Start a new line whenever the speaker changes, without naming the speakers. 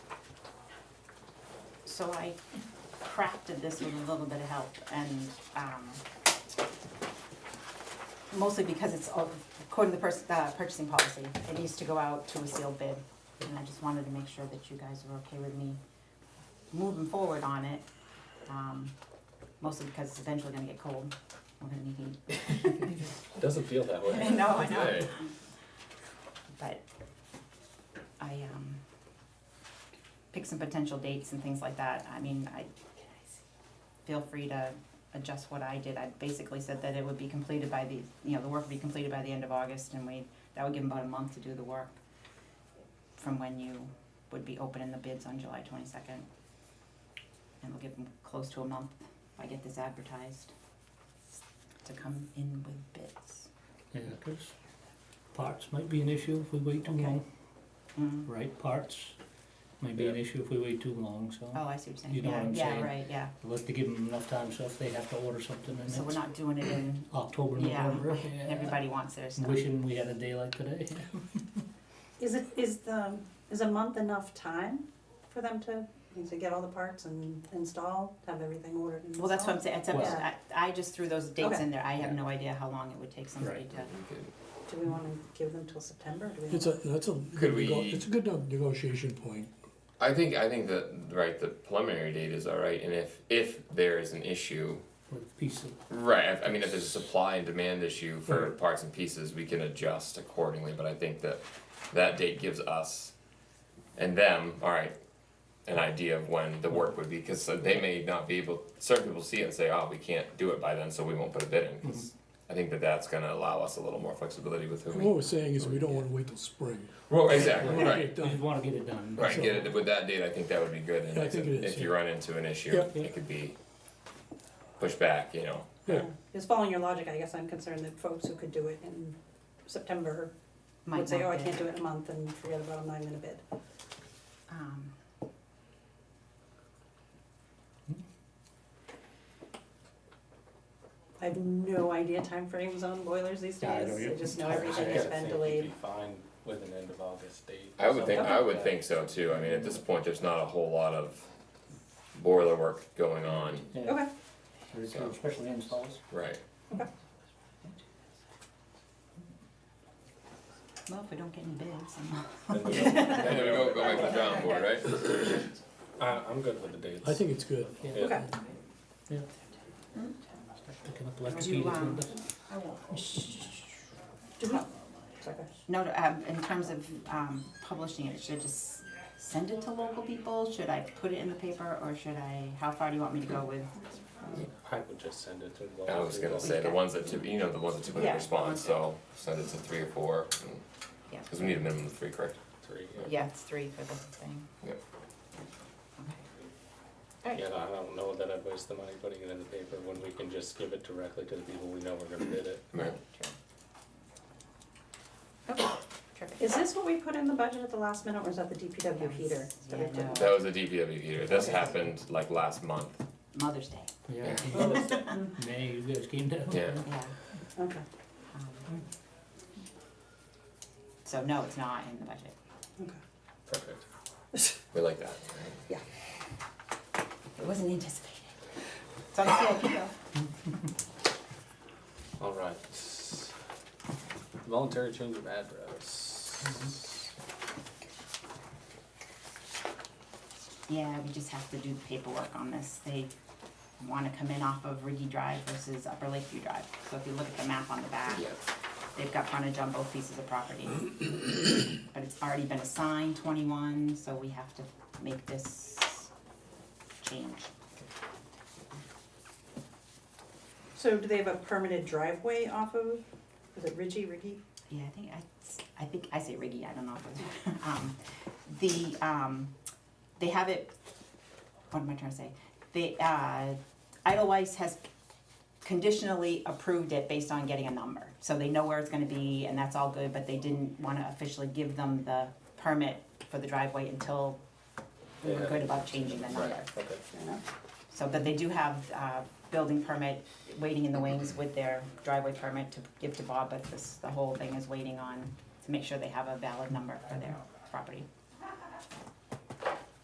so I crafted this with a little bit of help and, um, mostly because it's, all- according to the pers- uh, purchasing policy, it needs to go out to a sealed bid. And I just wanted to make sure that you guys were okay with me moving forward on it. Um, mostly because it's eventually gonna get cold, we're gonna need heat.
Doesn't feel that way.
I know, I know.
Hey,
but I um pick some potential dates and things like that. I mean, I feel free to adjust what I did. I basically said that it would be completed by the, you know, the work would be completed by the end of August and we, that would give them about a month to do the work from when you would be opening the bids on July twenty-second. And we'll give them close to a month if I get this advertised to come in with bids.
Yeah, 'cause parts might be an issue if we wait too long,
Mm.
right, parts might be an issue if we wait too long, so.
Oh, I see what you're saying.
You know what I'm
Yeah,
saying?
Yeah, right, yeah.
I'd like to give them enough time, so if they have to order something in
So we're
it's
not doing it in,
October,
yeah,
November.
everybody wants their stuff.
Wishing we had a day like today.
Is it, is the, is a month enough time for them to, to get all the parts and install, have everything ordered and installed?
Well, that's what I'm saying, it's up,
Well-
I, I just threw those dates in there, I have
Okay.
no idea how long it would take somebody
Right.
to,
Do we wanna give them till September, do we?
It's a, that's a,
Could
good nego-
we-
it's a good nego- negotiation point.
I think I think that right the preliminary date is all right, and if if there is an issue,
With piece of,
right? I, I mean, if there's a supply and demand issue for parts and pieces, we can adjust accordingly. But I think that that date gives us and them all right an idea of when the work would be because they may not be able. Certain people see it and say, "Oh, we can't do it by then, so we won't put a bid in."
Mm-hmm.
'cause I think that that's going to allow us a little more flexibility with who
And what
we.
we're saying is we don't wanna wait till spring.
Well, exactly
We wanna
right.
get it
we just
done.
wanna get it done.
Right,
So-
get it with that date. I think that would be good. And
Yeah, I
if,
think it is,
if you
yeah.
run into an issue,
Yep.
it could be pushed back. You know,
Yeah,
Just following your logic, I guess I'm concerned that folks who could do it in September would
might
say, oh, I
not
can't
be,
do it in a month and forget about them, I'm in a bid.
um.
I have no idea timeframes on boilers these
Yeah, I
days,
don't
I just know
I
everything
gotta
has
think
been
we'd
delayed.
be Fine with an end of August date.
I would think
Okay.
I would think so too. I mean, at this point, there's not a whole lot of boiler work going on,
Yeah,
Okay,
there's some Especially installs.
right?
Well, if we don't get any bids, I'm-
think.
And then we go, go back to the drawing board, right?
I, I'm good with the dates.
I think it's good.
Yeah.
okay,
Picking up like a
Do Hmm? you,
beat or
um,
something.
do we, sorry,
no, no, um, in terms of, um, publishing it, should I just send it to local people? Should I put it in the paper, or should I, how far do you want me to go with?
I would just send it to the.
I was gonna say the ones that typ- you know the ones that typically
Yeah.
respond. So send it to three or four,
Yeah.
because we need a minimum of three, correct?
Three,
Yeah, it's three for this thing.
Yep.
yeah. Yeah, I don't know that I'd waste the money putting it in the paper when we can just give it directly to the people we know we're gonna bid it.
Right.
Okay, terrific.
is this what we put in the budget at the last minute, or is that the DPW heater? that we
Yeah,
did?
no.
That was a DPW heater. This happened like last month.
Mother's Day,
Yeah,
Mm.
May, you guys came down.
Yeah.
yeah.
Okay,
Hmm.
Um, So no, it's not in the budget.
okay.
Perfect. We like that.
It wasn't anticipated. It's on the CIP though.
All right. Voluntary change of address.
Yeah, we just have to do the paperwork on this. They wanna come in off of Riggy Drive versus Upper Lakeview Drive. So if you look at the map on the back,
Yeah.
they've got frontage on both pieces of property. But it's already been assigned twenty-one, so we have to make this change.
So do they have a permitted driveway off of, is it Ridgy, Riggy?
Yeah, I think I, I think I say Riggy, I don't know. Um, the, um, they have it, what am I trying to say? They, uh, Edelweiss has conditionally approved it based on getting a number. So they know where it's gonna be and that's all good, but they didn't wanna officially give them the permit for the driveway until we were
Yeah.
good about changing the
Right,
number.
okay.
Fair enough.
So, but they do have, uh, building permit waiting in the wings with their driveway permit to give to Bob, but this, the whole thing is waiting on to make sure they have a valid number for their property.